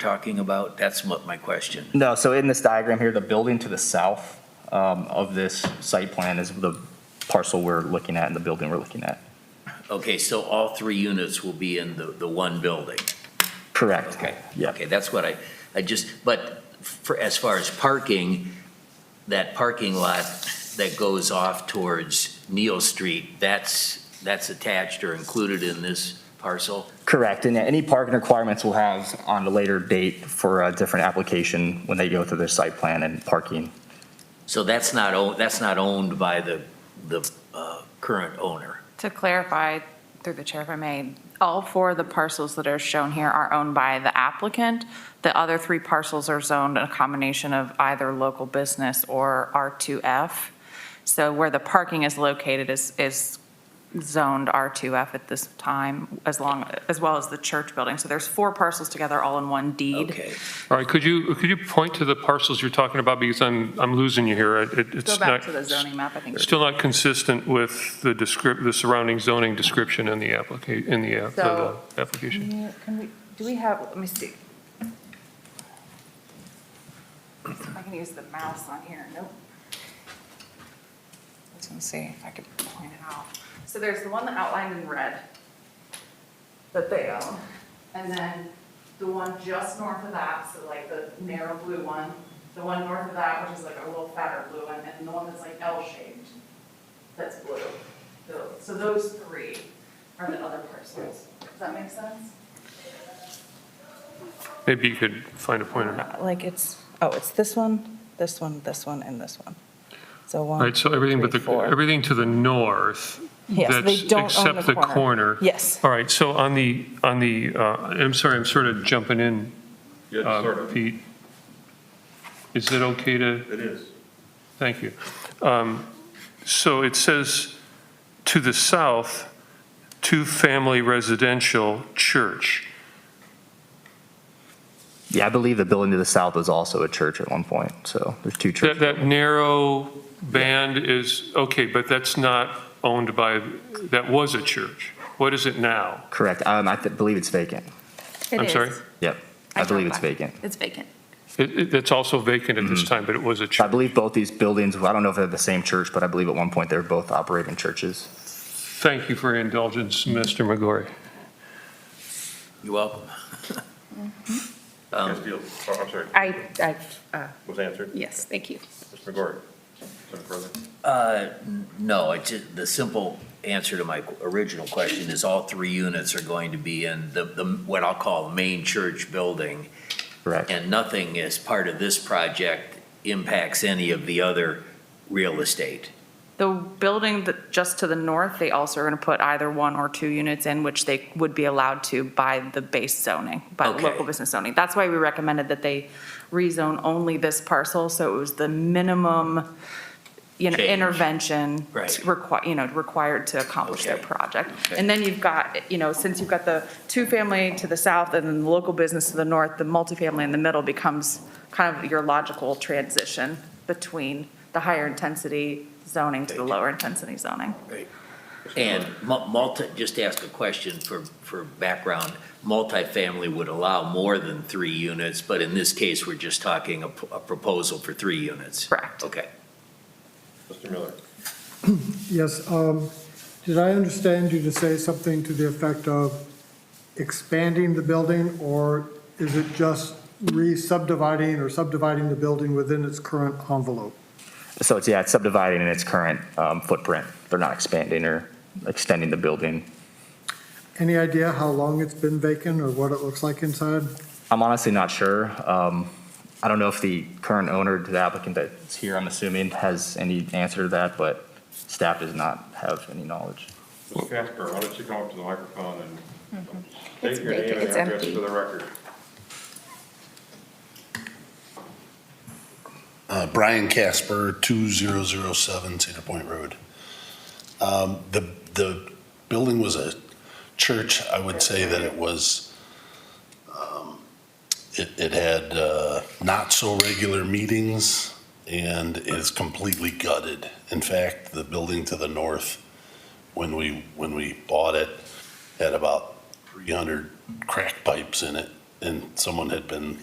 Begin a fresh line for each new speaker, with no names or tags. talking about? That's what my question.
No, so in this diagram here, the building to the south um, of this site plan is the parcel we're looking at and the building we're looking at.
Okay, so all three units will be in the, the one building?
Correct.
Okay.
Yeah.
Okay, that's what I, I just, but for, as far as parking, that parking lot that goes off towards Neal Street, that's, that's attached or included in this parcel?
Correct, and any parking requirements we'll have on a later date for a different application when they go through their site plan and parking.
So that's not, own- that's not owned by the, the uh, current owner?
To clarify, through the chair if I may, all four of the parcels that are shown here are owned by the applicant. The other three parcels are zoned a combination of either local business or R2F. So where the parking is located is, is zoned R2F at this time, as long, as well as the church building. So there's four parcels together, all in one deed.
Okay.
All right, could you, could you point to the parcels you're talking about, because I'm, I'm losing you here. It- it-
Go
It's
back
not,
to the zoning map, I think.
still not consistent with the descrip, the surrounding zoning description in the applica, in the, uh, the
So-
the application.
Yeah, Can we, do we have, let me see. I can use the mouse on here, nope. Let's go see if I can point it out.
So there's the one that outlined in red that they own, and then the one just north of that, so like the narrow blue one, the one north of that, which is like a little fatter blue one, and the one that's like L-shaped, that's blue. Tho- So those three are the other parcels. Does that make sense?
Maybe you could find a pointer.
Uh, Like it's, oh, it's this one, this one, this one, and this one. So
All
one.
right, so everything but
three,
the,
four.
everything to the north,
Yes, they
that's,
don't own
except
the
the corner.
Yes.
All right, so on the, on the, uh, I'm sorry, I'm sort of jumping in, uh,
Yeah, sort of.
Pete. Is it okay to?
It is.
Thank you. Um, So it says, to the south, two-family residential church.
Yeah, I believe the building to the south was also a church at one point, so there's two
That,
churches.
that narrow band is, okay, but that's not owned by, that was a church. What is it now?
Correct, um, I th- believe it's vacant.
I'm sorry?
Yep, I believe it's vacant.
It's vacant.
It, it- it's also vacant at this time, but it was a
I
church.
believe both these buildings, I don't know if they're the same church, but I believe at one point they were both operating churches.
Thank you for your indulgence, Mr. McGory.
You're welcome.
Um,
Yes, deal. Oh, I'm sorry,
I, I, uh,
was answered.
yes, thank you.
Mr. McGory, something further?
Uh, n- No, it's, ju- the simple answer to my original question is all three units are going to be in the, the, what I'll call main church building,
Correct,
and nothing as part of this project impacts any of the other real estate.
The building that, just to the north, they also are going to put either one or two units in, which they would be allowed to by the base zoning, by
Okay.
local business zoning. That's why we recommended that they rezone only this parcel, so it was the minimum, you know,
Change.
intervention.
Right.
Required, you know, required to accomplish their
Okay.
project.
Okay.
And then you've got, you know, since you've got the two-family to the south and then the local business to the north, the multifamily in the middle becomes kind of your logical transition between the higher intensity zoning to the lower intensity zoning.
And mu- multi, just to ask a question for, for background, multifamily would allow more than three units, but in this case, we're just talking a, p- a proposal for three units.
Correct.
Okay.
Mr. Miller?
Yes, um, did I understand you to say something to the effect of expanding the building, or is it just re-subdividing or subdividing the building within its current envelope?
so it's, yeah, it's subdividing in its current um, footprint. They're not expanding or extending the building.
Any idea how long it's been vacant or what it looks like inside?
I'm honestly not sure. Um, I don't know if the current owner, the applicant that's here, I'm assuming, has any answer to that, but staff does not have any knowledge.
Mr. Casper, why don't you come up to the microphone and
It's
state your name
vacant.
and
Hmm. It's
address
empty.
for the record?
Uh, Brian Casper, 2007 Cedar Point Road. Um, The, the building was a church. I would say that it was, um, it, it had uh, not so regular meetings and is completely gutted. In fact, the building to the north, when we, when we bought it, had about 300 crack pipes in it and someone had been